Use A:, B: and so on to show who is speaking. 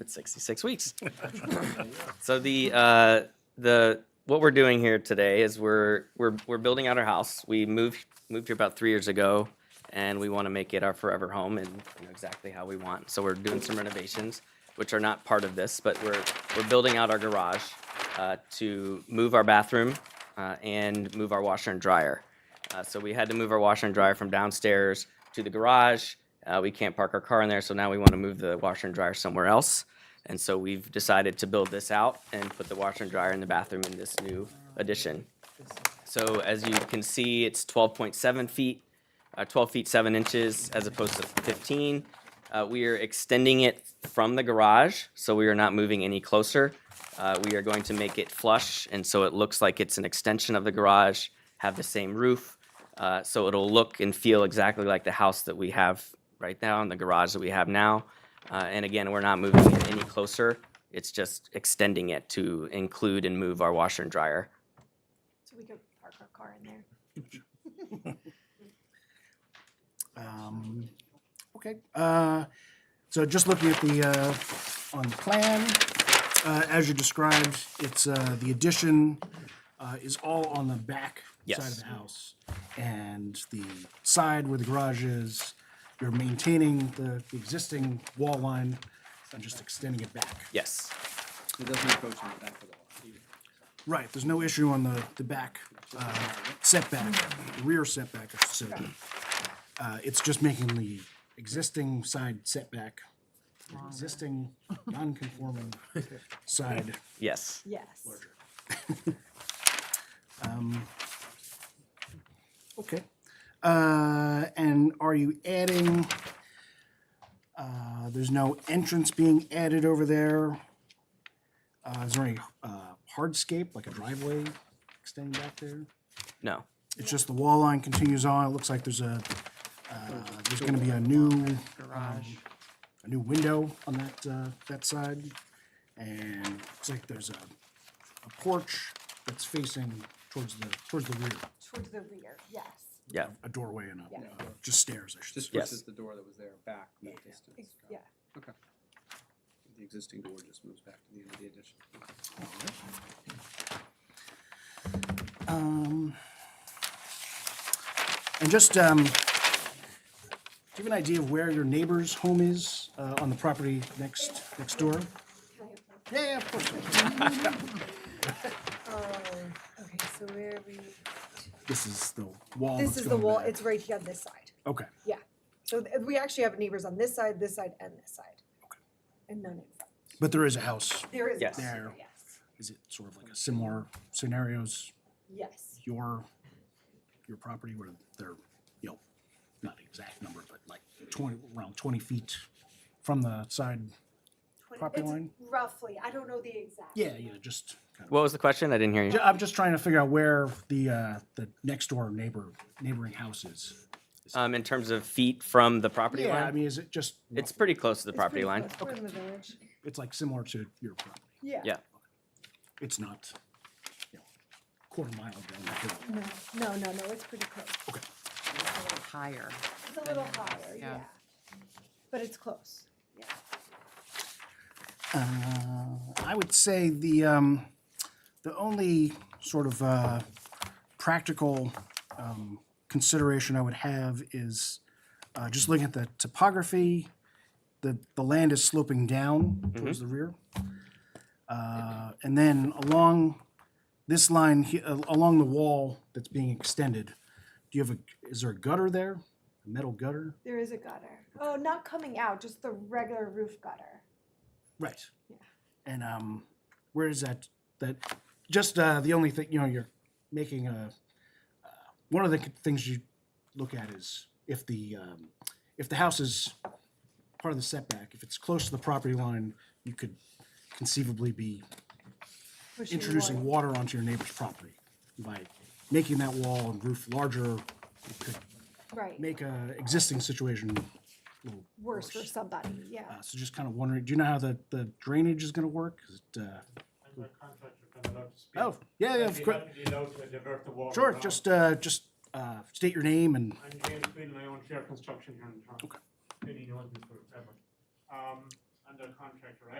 A: it's 66 weeks. so the uh, the what we're doing here today is we're we're we're building out our house. We moved moved here about three years ago, and we want to make it our forever home and you know, exactly how we want. So we're doing some renovations, which are not part of this, but we're we're building out our garage uh, to move our bathroom uh, and move our washer and dryer. Uh, so we had to move our washer and dryer from downstairs to the garage. Uh, we can't park our car in there, so now we want to move the washer and dryer somewhere else. And so we've decided to build this out and put the washer and dryer in the bathroom in this new addition. So as you can see, it's twelve point seven feet, uh, twelve feet seven inches as opposed to fifteen. Uh, we are extending it from the garage, so we are not moving any closer. Uh, we are going to make it flush, and so it looks like it's an extension of the garage, have the same roof. Uh, so it'll look and feel exactly like the house that we have right now and the garage that we have now. Uh, and again, we're not moving it any closer. It's just extending it to include and move our washer and dryer.
B: So we could park our car in there.
C: Um, Okay, uh, so just looking at the, uh, on the plan, uh, as you described, it's, uh, the addition uh, is all on the back side
A: Yes.
C: of the house. And the side where the garage is, you're maintaining the the existing wall line and just extending it back.
A: Yes.
D: It doesn't approach in the back of the lot.
C: Right, there's no issue on the, the back uh, setback, rear setback, I should say. Uh, It's just making the existing side setback, the existing non-conforming side.
A: Yes.
B: Yes.
C: Okay. Uh, And are you adding, uh, there's no entrance being added over there? Uh, Is there any uh, hardscape, like a driveway extending back there?
A: No.
C: It's just the wall line continues on. It looks like there's a, uh, there's gonna be a new. Garage. A new window on that, uh, that side. And looks like there's a, a porch that's facing towards the, towards the rear,
B: Towards the rear, yes.
A: Yeah.
C: a doorway and a,
B: Yeah.
C: uh, just stairs, I should
D: Just
C: say.
A: Yes.
D: switches the door that was there back that distance.
B: Ex-
D: Got it.
B: Yeah,
D: Okay. The existing door just moves back to the end of the addition.
C: Um, And just, um, do you have an idea of where your neighbor's home is, uh, on the property next, next door? Yeah, yeah, of course.
B: um, okay, so where we,
C: This is the wall.
B: this
C: that's
B: is the
C: going
B: wall,
C: back.
B: it's right here on this side,
C: Okay.
B: yeah. So th- we actually have neighbors on this side, this side, and this side. And none in front.
C: But there is a house.
B: There is.
A: Yes.
B: none,
C: There.
B: Yes,
C: Is it sort of like a similar scenarios,
B: yes,
C: your, your property where they're, you know, not exact number, but like twenty, around twenty feet from the side?
B: Twen-
C: Property
B: it's
C: line?
B: Roughly, I don't know the exact.
C: Yeah, yeah, just kind of.
A: What was the question? I didn't hear you.
C: Ju- I'm just trying to figure out where the, uh, the next door neighbor, neighboring house is.
A: Um, in terms of feet from the property
C: Yeah, I
A: line,
C: mean, is it just,
A: it's pretty close to the
B: It's
A: property
B: pretty
A: line.
B: close. We're in the village.
C: it's like similar to your property?
B: Yeah.
A: Yeah.
C: It's not, you know, quarter mile down the hill?
B: No, no, no, no, it's pretty close.
E: higher.
B: It's a little higher, yeah.
E: Yeah.
B: But it's close, yeah.
C: Uh, I would say the, um, the only sort of, uh, practical, um, consideration I would have is, uh, just looking at the topography, the, the land is sloping down towards the rear. Uh, and then along this line, he- a- along the wall that's being extended, do you have a, is there a gutter there? A metal gutter?
B: There is a gutter. Oh, not coming out, just the regular roof gutter.
C: Right.
B: Yeah.
C: And um, where is that? That just uh, the only thing you know you're making a. Uh, one of the things you look at is if the um, if the house is part of the setback, if it's close to the property line, you could conceivably be
B: Pushing
C: introducing
B: water.
C: water onto your neighbor's property by making that wall and roof larger. It could
B: Right,
C: make a existing situation. a little
B: worse for somebody, yeah.
C: Uh, so just kind of wondering, do you know how the, the drainage is going to work? Is it, uh,
F: I'm a contractor, if I'm allowed to speak.
C: Oh, yeah, yeah,
F: I'd
C: of
F: be
C: cour-
F: happy to allow to divert the water
C: Sure,
F: around.
C: just, uh, just, uh, state your name and,
F: I'm James Quinn and I own Share Construction here in town. Okay. Billy knows me forever. Um, I'm the contractor. I